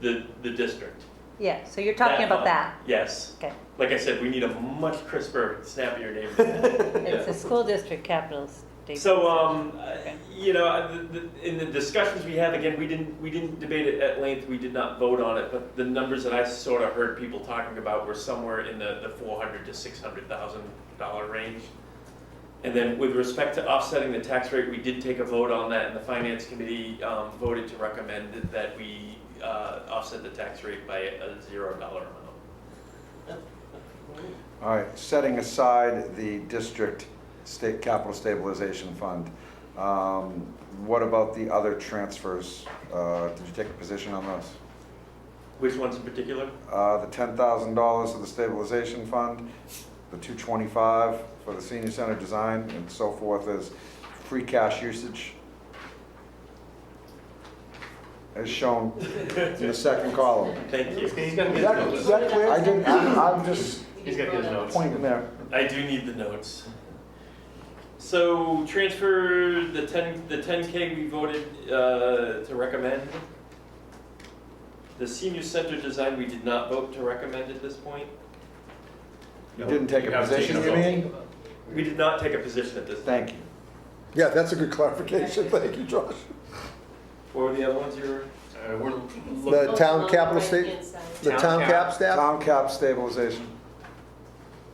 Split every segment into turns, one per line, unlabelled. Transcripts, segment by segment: the, the district.
Yeah, so you're talking about that.
fund. Yes.
Okay.
Like I said, we need a much crisper, snappier name. for that.
It's the school district capital state.
So, um, uh, you know, uh, the- the- in the discussions we had, again, we didn't, we didn't debate it at length, we did not vote on it, but the numbers that I sort of heard people talking about were somewhere in the, the four hundred to six hundred thousand dollar range. And then with respect to offsetting the tax rate, we did take a vote on that, and the finance committee, um, voted to recommend that- that we, uh, offset the tax rate by a zero dollar amount.
All right, setting aside the district state capital stabilization fund, um, what about the other transfers? Uh, Did you take a position on those?
Which ones in particular?
Uh, The $10,000 of the stabilization fund, the 225 for the senior center design and so forth as free cash usage as shown in the second column.
Thank you.
He's gonna
Is
get
that is
his notes.
that clear? I didn't, I'm I'm just
He's gonna get his notes.
pointing there.
I do need the notes. So transfer the ten, the ten K we voted, uh, to recommend. The senior center design, we did not vote to recommend at this point.
You didn't take a
haven't
position,
taken a
you
vote.
mean?
We did not take a position at this.
Thank you.
Yeah, that's a good clarification, thank you, Josh.
What were the other ones you were?
Uh, we're
The
look,
town capital state,
uh,
the
Town
town
cap.
cap staff?
Town cap stabilization.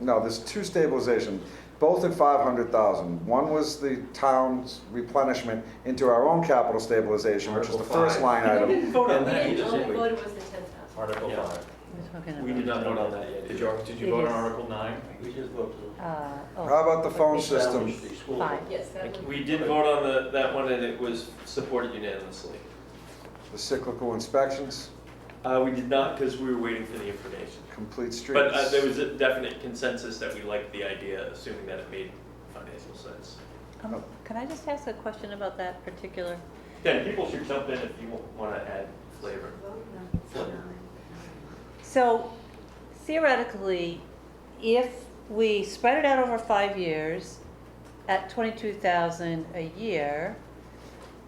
No, there's two stabilization, both at five hundred thousand. One was the town's replenishment into our own capital stabilization, which is the
Article
first line
five.
We
item.
didn't vote on
And-
that
Yeah,
either,
all we
did we?
voted was the ten thousand.
Article
Yeah.
five.
We're talking
We did
about-
not vote on that yet.
Did you, did you
It
vote on
is-
Article nine?
We just voted.
Uh, oh.
How about the phone
Okay.
system?
Fine.
Yes, that one.
We did vote on the, that one and it was supported unanimously.
The cyclical inspections,
Uh, we did not because we were waiting for the information.
complete streets.
But uh, there was a definite consensus that we liked the idea, assuming that it made financial sense.
Um, Can I just ask a question about that particular?
Then people should jump in if you want to add flavor.
So theoretically, if we spread it out over five years at twenty-two thousand a year,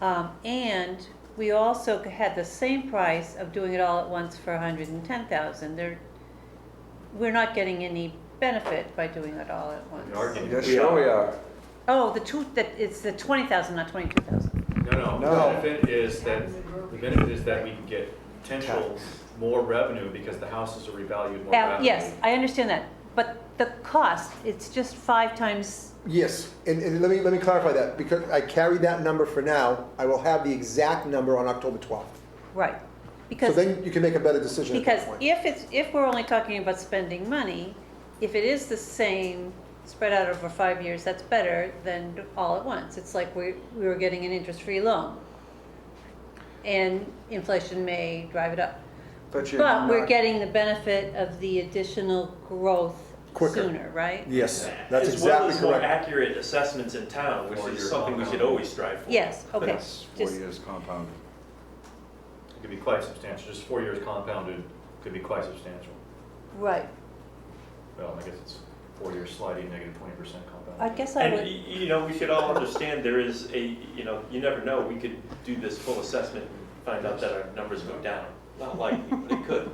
um, and we also had the same price of doing it all at once for a hundred and ten thousand, there, we're not getting any benefit by doing it all at once.
We are getting-
Yes, sure we are.
Oh, the two, that, it's the twenty thousand, not twenty-two thousand.
No, no,
No.
the benefit is that, the benefit is that we can get potential more revenue because the houses are revalued more rapidly.
yes, I understand that, but the cost, it's just five times,
Yes, and, and let me, let me clarify that, because I carried that number for now, I will have the exact number on October twelfth.
right,
So
because.
then you can make a better decision at
Because
that point.
if it's, if we're only talking about spending money, if it is the same spread out over five years, that's better than all at once. It's like we, we were getting an interest-free loan. And inflation may drive it up.
But you're
But we're
not-
getting the benefit of the additional growth
Quicker.
sooner, right?
Yes, that's exactly
As well as more
correct.
accurate assessments in town, which
Or
is
your
something we should
compound.
always strive for.
Yes, okay.
Yes, four
Just,
years compounded.
It could be quite substantial, just four years compounded could be quite substantial.
right.
Well, I guess it's four years sliding negative twenty percent
I
compounded.
guess I
And, y-
would,
you know, we should all understand there is a, you know, you never know, we could do this full assessment and find out that our numbers go down. Not likely, but it could.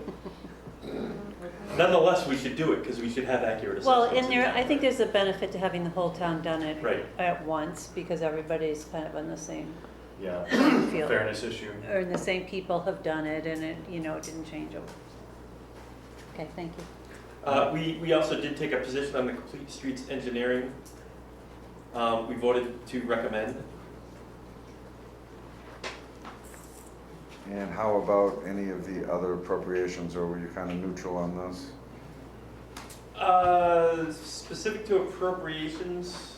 Nonetheless, we should do it because we should have accurate
well,
assessments in
and there,
town.
I think there's a benefit to having the whole town done it
Right.
at once, because everybody's kind of on the same
Yeah,
field.
fairness issue.
or the same people have done it and it, you know, it didn't change over. Okay, thank you.
Uh, we, we also did take a position on the complete streets engineering. Um, we voted to recommend.
And how about any of the other appropriations, or were you kind of neutral on those?
Uh, specific to appropriations.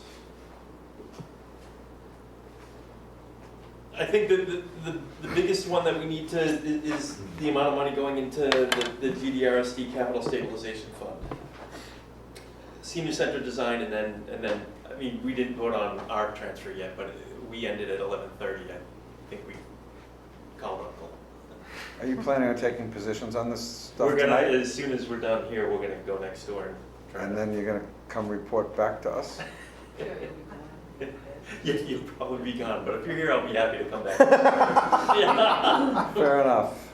I think that the, the, the biggest one that we need to, i- is the amount of money going into the, the GDRSD capital stabilization fund. Senior center design and then, and then, I mean, we didn't vote on our transfer yet, but we ended at eleven thirty, I think we called on goal.
Are you planning on taking positions on this stuff
We're gonna,
tonight?
as soon as we're done here, we're gonna go next door and try to.
And then you're gonna come report back to us?
Yeah, you'll probably be gone, but if you're here, I'll be happy to come back. Yeah.
Fair enough.